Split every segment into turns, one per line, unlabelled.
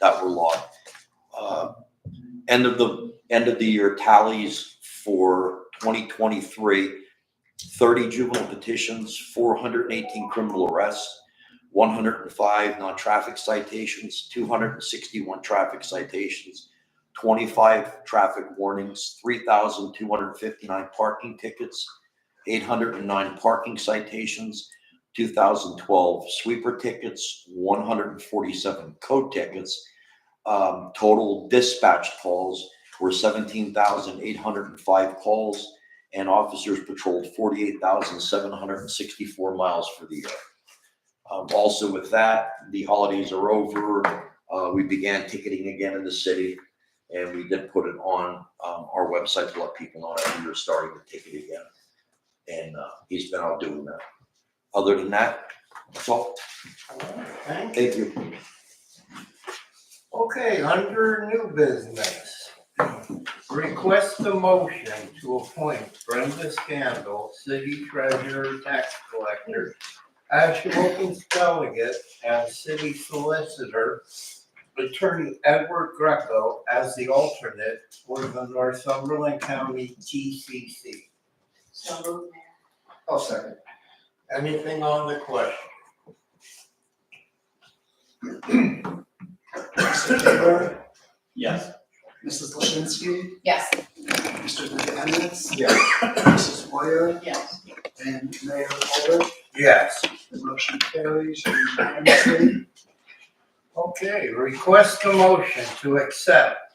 that were logged. Uh, End of the, end of the year tallies for 2023, 30 juvenile petitions, 418 criminal arrests, 105 non-traffic citations, 261 traffic citations, 25 traffic warnings, 3,259 parking tickets, 809 parking citations, 2012 sweeper tickets, 147 code tickets. Um, Total dispatch calls were 17,805 calls, and officers patrolled 48,764 miles for the year. Um, Also with that, the holidays are over. Uh, We began ticketing again in the city, and we did put it on um, our website to let people know that we were starting to ticket again. And uh, he's been out doing that. Other than that, that's all.
Thank you.
Thank you.
Okay, under new business. Request a motion to appoint Brenda Scandal, city treasurer, tax collector, as Ashwokens delegate and city solicitor, attorney Edward Greco as the alternate for the Northumberland County TCC.
So moved, Mayor.
I'll second.
Anything on the question?
Mr. Taylor,
Yes.
Mrs. Lasinski,
Yes,
Mr. McAdams.
Yeah.
Mrs. Moyer
yes.
and Mayor Holder.
Yes.
The motion carries unanimously.
Okay, request a motion to accept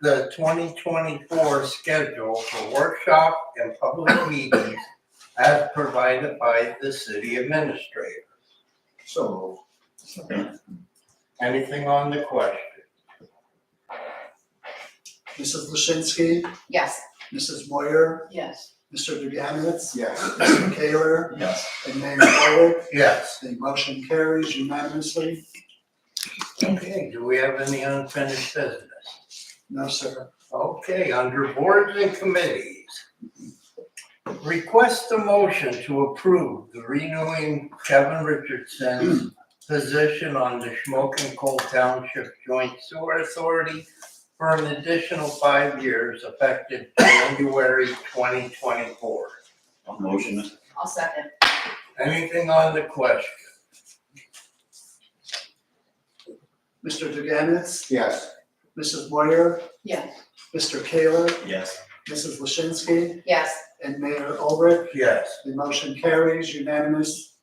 the twenty twenty-four schedule for workshop and public meetings as provided by the city administrator.
So
Anything on the question?
Mrs. Lasinski,
Yes.
Mrs. Moyer,
Yes.
Mr. McAdams. Yes. Mr. Taylor
Yes.
and Mayor Holder.
Yes.
The motion carries unanimously.
Okay, do we have any unfinished business?
No, sir.
Okay, under boards and committees. Request a motion to approve the renewing Kevin Richardson's position on the Smoking Coal Township Joint Sewer Authority for an additional five years effective January twenty twenty-four.
I'll motion it.
I'll second.
Anything on the question?
Mr. McAdams,
Yes.
Mrs. Moyer,
Yes.
Mr. Taylor,
Yes.
Mrs. Lasinski,
Yes.
and Mayor Holder.
Yes.
The motion carries unanimous.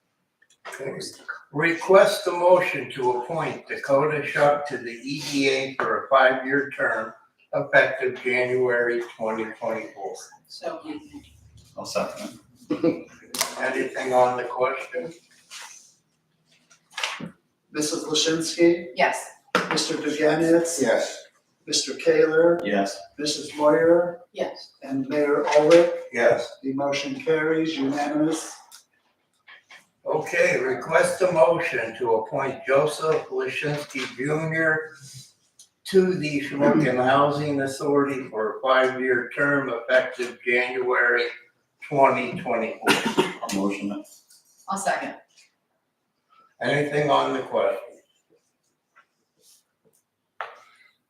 Request a motion to appoint Dakota Shuck to the EDA for a five-year term effective January twenty twenty-four.
So moved. Mayor.
I'll second
Anything on the question?
Mrs. Lasinski,
Yes.
Mr. McAdams.
Yes.
Mr. Taylor,
it. Yes.
Mrs. Moyer,
Yes.
and Mayor Olrich.
Yes.
The motion carries unanimous.
Okay, request a motion to appoint Joseph Lashinsky Jr. to the Shamokin Housing Authority for a five-year term effective January twenty twenty-four.
I'll motion it.
I'll second.
Anything on the question?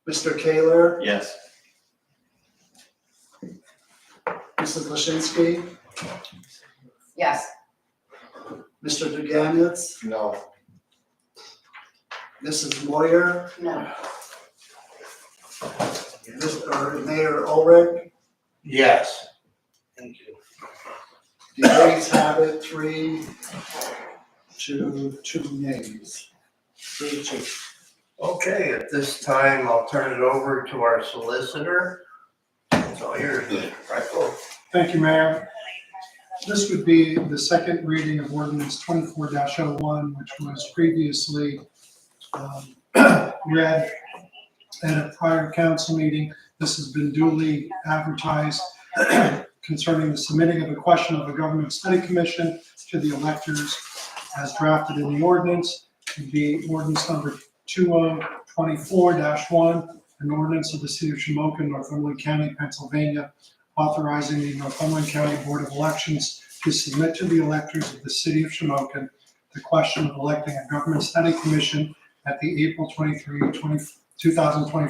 Mr. Taylor,
Yes.
Mrs. Lasinski,
Yes.
Mr. Duganitz,
No.
Mrs. Moyer,
No.
Mis- or Mayor Olrich.
Yes. Thank you.
The ayes have it, three to two nays. Three to,
Okay, at this time, I'll turn it over to our solicitor. It's all yours, Mr. Freckles.
Thank you, Mayor. This would be the second reading of ordinance twenty-four one which was previously um, read at a prior council meeting. This has been duly advertised concerning the submitting of a question of a government study commission to the electors as drafted in the ordinance. It'd be ordinance number two oh twenty-four one, an ordinance of the city of Shamokin, Northumberland County, Pennsylvania, authorizing the Northumberland County Board of Elections to submit to the electors of the city of Shamokin the question of electing a government study commission at the April 23, 2024 two thousand twenty-four